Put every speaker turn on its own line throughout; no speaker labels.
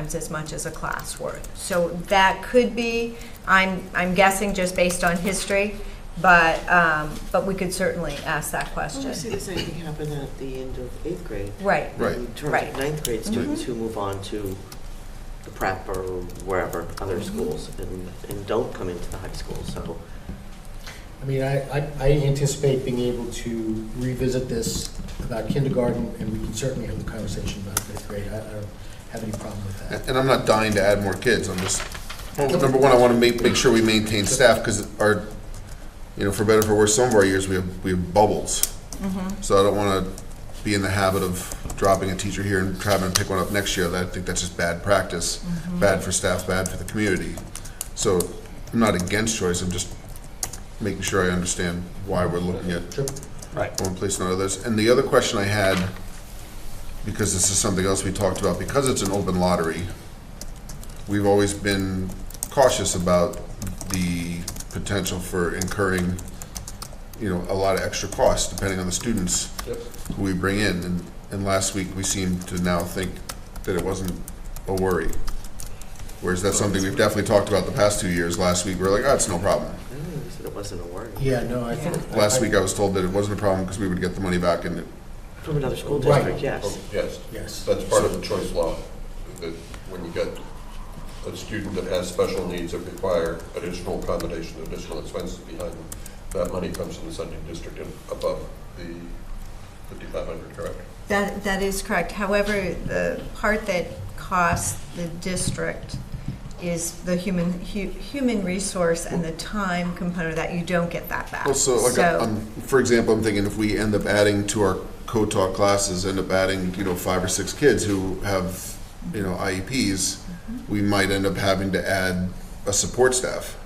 times as much as a class worth. So that could be, I'm, I'm guessing just based on history, but, um, but we could certainly ask that
Well, we see
question.
the same thing happen at the end of eighth grade.
Right,
Right.
In terms
Right.
of ninth grade students who move on to the prep or wherever, other schools, and, and don't come into the high school, so.
I mean, I, I- I anticipate being able to revisit this about kindergarten, and we can certainly have the conversation about fifth grade. I I don't have any problem with that.
And I'm not dying to add more kids, I'm just, well, number one, I want to make, make sure we maintain staff, because our, you know, for better or for worse, some of our years, we have, we have bubbles. So I don't want to be in the habit of dropping a teacher here and trying to pick one up next year, That- I think that's just bad practice, bad for staff, bad for the community. So I'm not against choice, I'm just making sure I understand why we're looking at
Sure.
one place and others. And the other question I had, because this is something else we talked about, because it's an open lottery, we've always been cautious about the potential for incurring, you know, a lot of extra costs depending on the students who we bring in. And, and last week, we seemed to now think that it wasn't a worry. Whereas that's something we've definitely talked about the past two years. Last week, we we're like, oh, it's no problem.
I don't know, you said it wasn't a word.
Yeah, no, I think.
Last week, uh, I was told that it wasn't a problem because we would get the money back and it
From another school
Right.
district, yes.
Oh, Yes,
Yes.
that's part of the choice law, that when you get a student that has special needs that require additional accommodation, additional expenses behind them, that money comes from the Sunday district and above the 5,500, correct?
that, that is correct. However, the part that costs the district is the human, hu- human resource and the time component of that, you don't get that back.
Well, so like, um, for example, I'm thinking if we end up adding to our co-taught classes, end up adding, you know, five or six kids who have, you know, IEPs,
Mm-hmm.
we might end up having to add a support staff,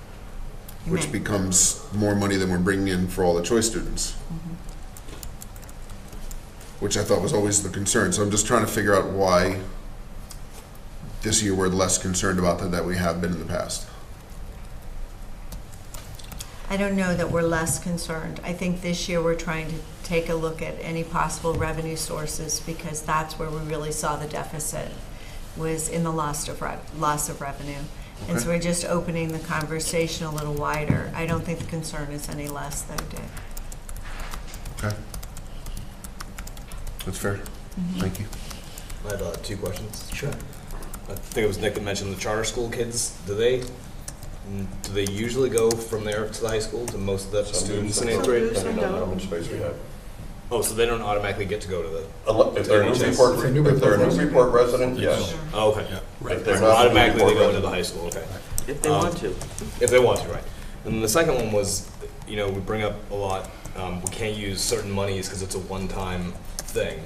You
which
may.
becomes more money than we're bringing in for all the choice students.
Mm-hmm.
Which I thought was always the concern, so I'm just trying to figure out why this year we're less concerned about that than we have been in the past.
I don't know that we're less concerned. I think this year we're trying to take a look at any possible revenue sources because that's where we really saw the deficit was in the loss of, rev- loss of revenue. And so we're just opening the conversation a little wider. I don't think the concern is any less though, Dick.
Okay? That's fair.
Mm-hmm.
Thank you.
I have uh, two questions.
Sure.
I think it was Nick that mentioned the charter school kids. Do they mm, do they usually go from there to the high school to most of the
Some
students
do, some
in eighth
do.
grade?
Depending on how much space we have.
Oh, so they don't automatically get to go to the.
Unle- If they're a
If they're a
Newburyport, if they're a
Newburyport
Newburyport resident, yes.
Oh, okay. Yeah.
Right.
So automatically they go into the high school. Okay.
If they
Um,
want to.
If they want to, right. And the second one was, you know, we bring up a lot. Um, we can't use certain monies because it's a one-time thing.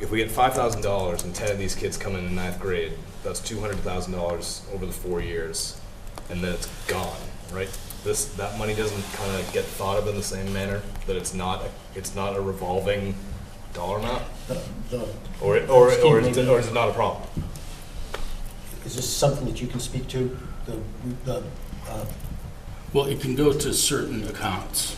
If we get five thousand dollars and ten of these kids come in in ninth grade, that's two hundred thousand dollars over the four years, and then it's gone, right? This that money doesn't kind of get thought of in the same manner that it's not it's not a revolving dollar amount,
The- the-
or it, or or
Excuse
is
me.
it, or is it not a problem?
Is this something that you can speak to? The, the, uh,
Well, it can go to certain accounts.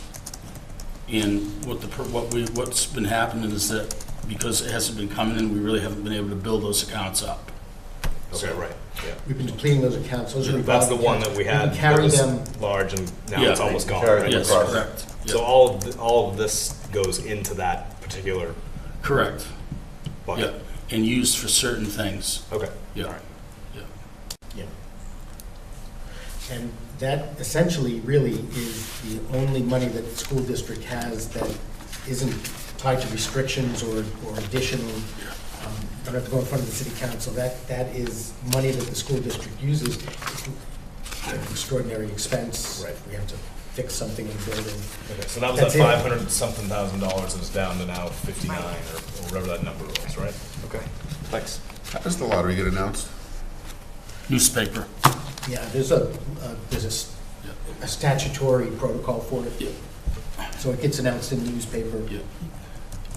And what the, per- what we, what's been happening is that because it hasn't been coming in, we really haven't been able to build those accounts up.
Okay, right. Yeah.
we've been depleting those accounts, those are.
That's the one that we had. that
Carry
was
them,
Large and now
Yeah.
it's almost gone.
Carry
right?
Yes,
Across.
correct.
So
Yeah,
all of, th- all of this goes into that particular
Correct, yeah,
bucket?
and used for certain things,
Okay. All
yeah.
right.
and that essentially really is the only money that the school district has that isn't tied to restrictions or, or additional, um, don't have to go in front of the city council, that, that is money that the school district uses. It's an Extraordinary expense.
Right.
We have to fix something in the building.
Okay, so that was
That's
that
it.
five hundred something thousand dollars and it's down to now fifty-nine or or whatever that number was, right? Okay, thanks.
How does the lottery get announced?
Newspaper,
Yeah, there's a, uh, there's a s- a statutory protocol for
Yeah.
it. So it gets announced in the newspaper.
yeah.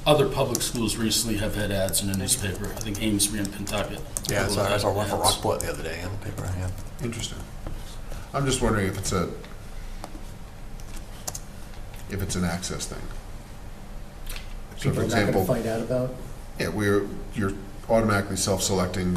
Other public schools recently have had ads in the newspaper, I think Amesbury and Pentucket.
Yeah, I saw, I saw one for
Ads.
Rockport the other day in the paper, yeah.
Interesting. I'm just wondering if it's a, if it's an access thing. So for
People are not going to
example,
find out about.
yeah, we're, you're automatically self-selecting